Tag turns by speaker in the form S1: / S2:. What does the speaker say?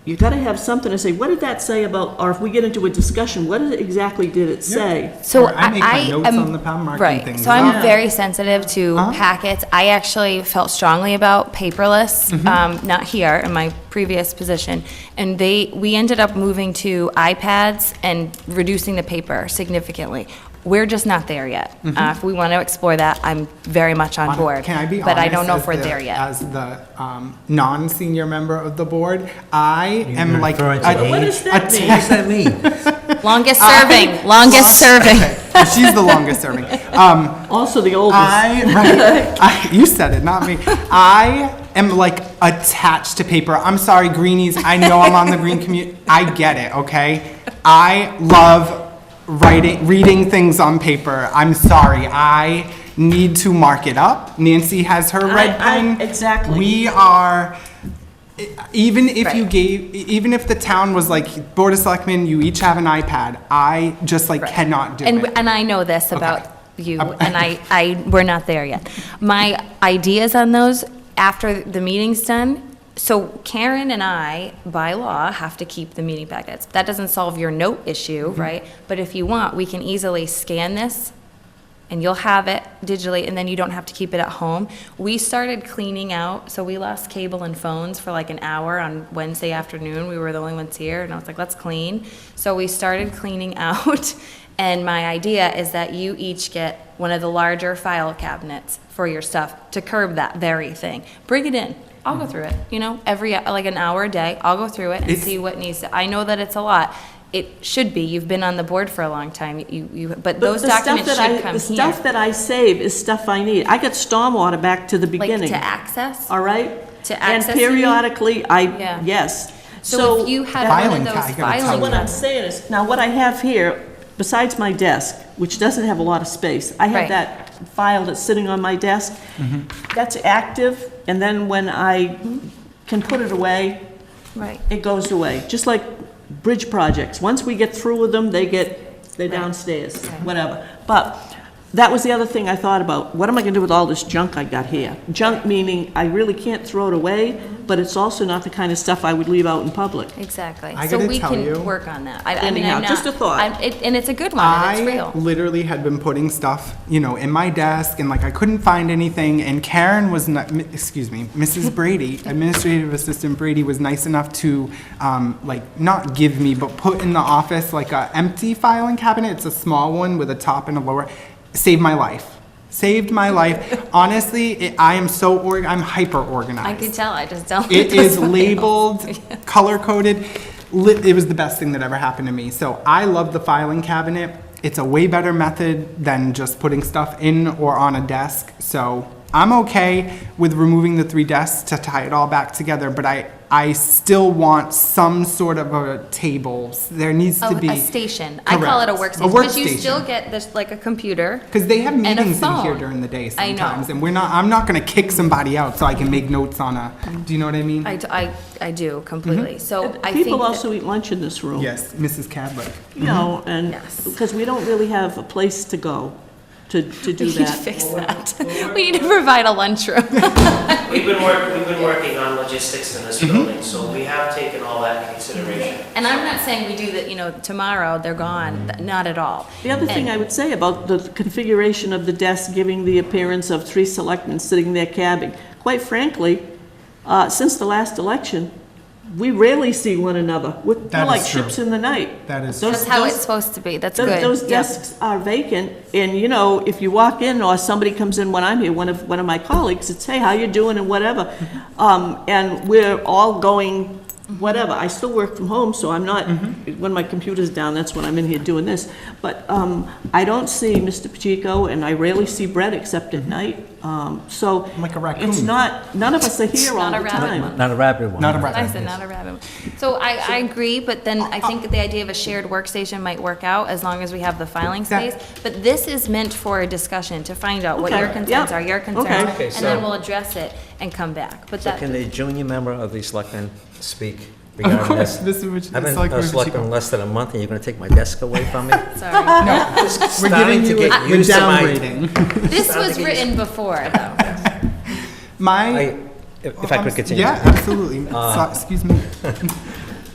S1: you gotta have something to say, what did that say about, or if we get into a discussion, what did it- exactly did it say?
S2: So
S3: Or I make my
S2: I
S3: notes
S2: am-
S3: on the pound, marking
S2: Right,
S3: things Uh-huh.
S2: so I'm
S3: up.
S2: very sensitive to packets. I actually felt strongly about paperless,
S3: Mm-hmm.
S2: um, not here, in my previous position. And they, we ended up moving to iPads and reducing the paper significantly. We're just not there yet. Uh, If we want to explore that, I'm very much on board.
S3: Mm-hmm. Can I be honest?
S2: But I don't know if
S3: as
S2: we're
S3: the-
S2: there yet.
S3: As the um, non-senior member of the board, I am like.
S4: referring to
S3: a-
S4: me?
S1: What does
S3: a
S1: that mean?
S3: tech-
S4: What does that mean?
S2: Longest serving, longest serving.
S3: Okay, She's the longest serving. Um,
S1: Also the
S2: Uh,
S1: oldest.
S3: I, right, I, you said it, not me. I am like attached to paper. I'm sorry, greenies. I know I'm on the green commu I get it, okay? I love writing, reading things on paper. I'm sorry. I need to mark it up. Nancy has her red
S1: I- I-
S3: pen.
S1: exactly.
S3: We are. e, Even if you
S2: Right.
S3: gave, e, even if the town was like, Board of Selectmen, you each have an iPad, I just like cannot do
S2: and,
S3: it.
S2: And I know this
S3: Okay.
S2: about you, and I, I, we're not there yet. My ideas on those after the meeting's done, so Karen and I, by law, have to keep the meeting packets. That doesn't solve your note issue,
S3: Mm-hmm.
S2: right? But if you want, we can easily scan this and you'll have it digitally, and then you don't have to keep it at home. We started cleaning out, so we lost cable and phones for like an hour on Wednesday afternoon. We were the only ones here, and I was like, let's clean. So we started cleaning out, and my idea is that you each get one of the larger file cabinets for your stuff to curb that very thing. Bring it in. I'll go through it, you know, every, like an hour a day. I'll go through it and
S3: It's-
S2: see what needs to, I know that it's a lot. It should be. You've been on the board for a long time. You, you, but
S1: But
S2: those
S1: the stuff
S2: documents
S1: that I-
S2: should come
S1: The stuff
S2: here.
S1: that I save is stuff I need. I get stormwater back to the
S2: Like
S1: beginning,
S2: to access?
S1: all right?
S2: to access,
S1: And
S2: you mean?
S1: periodically,
S2: Yeah.
S1: I, yes.
S2: So if you had one
S3: Filing
S2: of those
S3: cabinet. So
S2: filing
S1: What I'm
S2: cabinets.
S1: saying is, now what I have here, besides my desk, which doesn't have a lot of space, I have
S2: Right.
S1: that file that's sitting on my desk. That's active, and then when I can put it away,
S2: Right.
S1: it goes away. Just like bridge projects. Once we get through with them, they get, they're
S2: Right.
S1: downstairs,
S2: Right.
S1: whatever. But that was the other thing I thought about. What am I gonna do with all this junk I got here? Junk meaning I really can't throw it away, but it's also not the kind of stuff I would leave out in public.
S2: Exactly.
S3: I
S2: So
S3: gotta
S2: we
S3: tell
S2: can
S3: you-
S2: work on that. I, I mean,
S1: Anyhow,
S2: I'm not.
S1: just a thought.
S2: I'm- it- And it's a good one, and it's
S3: I
S2: real.
S3: literally had been putting stuff, you know, in my desk and like I couldn't find anything. And Karen was, ni- m- excuse me, Mrs. Brady, Administrative Assistant Brady was nice enough to um, like not give me, but put in the office like a empty filing cabinet. It's a small one with a top and a lower. Saved my life. Saved my life. Honestly, it, I am so org. I'm hyper organized.
S2: I could tell, I just don't.
S3: It
S2: those
S3: is
S2: files.
S3: labeled, color coded. It was the best thing that ever happened to me. So I love the filing cabinet. It's a way better method than just putting stuff in or on a desk. So I'm okay with removing the three desks to tie it all back together, but I, I still want some sort of a table. There needs
S2: Oh, A-
S3: to be.
S2: A station. I call it a
S3: Correct.
S2: workstation. Because you still
S3: workstation.
S2: get this, like a computer.
S3: Because they have
S2: and a
S3: meetings in here
S2: phone.
S3: during the day
S2: I know.
S3: sometimes, and we're not, I'm not gonna kick somebody out so I can make notes on a, do you know what I mean?
S2: I, d- I- I do completely. So I think.
S1: Mm-hmm. People
S2: that-
S1: also eat lunch in this room.
S3: Yes, Mrs. Cadlick.
S1: You know, and,
S2: Mm-hmm. Yes.
S1: because we don't really have a place to go to, to do
S2: We need to
S1: that.
S2: fix that. We need to provide a lunchroom.
S5: We've been work, we've been working on logistics in this building, so we have taken all that into consideration.
S2: And I'm not saying we do that, you know, tomorrow, they're gone, Th- not at all.
S1: The other thing I would say about the configuration of the desk giving the appearance of three selectmen sitting there cabbing, quite frankly, uh, since the last election, we rarely see one another. We're we're
S3: That
S1: like
S3: is true.
S1: ships in the night.
S3: That is
S1: Those-
S2: That's how it's
S1: those-
S2: supposed to be, that's
S1: Tho-
S2: good.
S1: Those
S2: Yep.
S1: desks are vacant, and you know, if you walk in, or somebody comes in when I'm here, one of, one of my colleagues, it's, hey, how you doing, and whatever.
S2: Mm-hmm.
S1: Um, and we're all going, whatever, I still work from home, so I'm not,
S2: Mm-hmm.
S1: when my computer's down, that's when I'm in here doing this. But, um, I don't see Mr. Pacheco, and I rarely see Brett except
S2: Mm-hmm.
S1: at night, um, so.
S3: Like a raccoon.
S1: It's not, none of us are
S2: It's
S1: here all
S2: not
S1: the
S2: a rabbit
S1: time.
S2: one.
S4: Not a rapid one.
S3: Not a rapid
S2: I said not a rabbit. So I, I agree, but then I think the idea of a shared workstation might work out as long as we have the filing
S3: Exact-
S2: space. But this is meant for a discussion to find out what
S1: Okay,
S2: your concerns
S1: yeah.
S2: are, your
S1: Okay.
S2: concerns,
S1: Okay,
S2: and then we'll address it and come back. But
S4: So can
S2: that,
S4: the junior member of the selectmen speak regarding this?
S3: course, this is what-
S4: I've been
S3: Selectman
S4: a selectman
S3: Pacheco.
S4: less than a month, and you're gonna take my desk away from me?
S2: sorry.
S3: We're giving
S4: Starting to
S3: you,
S4: get
S3: a- we're
S4: used to my-
S3: downgrading.
S2: This
S4: Sounds
S2: was
S4: like it
S2: written before, though.
S3: My.
S4: I- If if I
S3: I'm
S4: could
S3: s-
S4: continue. Uh,
S3: Yeah, absolutely. So- Excuse me.